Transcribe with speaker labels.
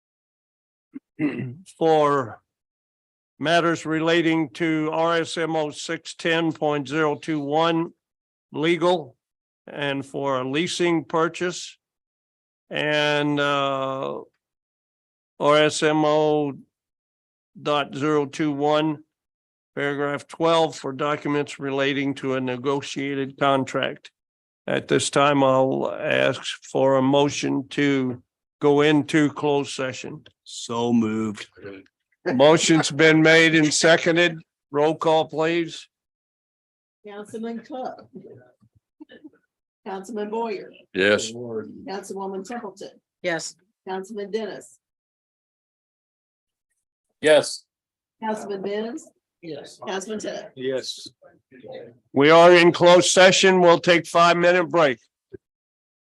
Speaker 1: for matters relating to RSMO six ten point zero two one legal and for a leasing purchase and uh RSMO dot zero two one, paragraph twelve for documents relating to a negotiated contract. At this time, I'll ask for a motion to go into closed session.
Speaker 2: So moved.
Speaker 1: Motion's been made and seconded. Roll call, please.
Speaker 3: Councilman Cook. Councilman Boyer,
Speaker 4: Yes.
Speaker 3: Councilwoman Templeton,
Speaker 5: Yes.
Speaker 3: Councilman Dennis,
Speaker 4: Yes.
Speaker 3: Councilman Benz,
Speaker 5: Yes.
Speaker 3: Councilman Taylor.
Speaker 4: Yes.
Speaker 1: We are in closed session. We'll take five minute break.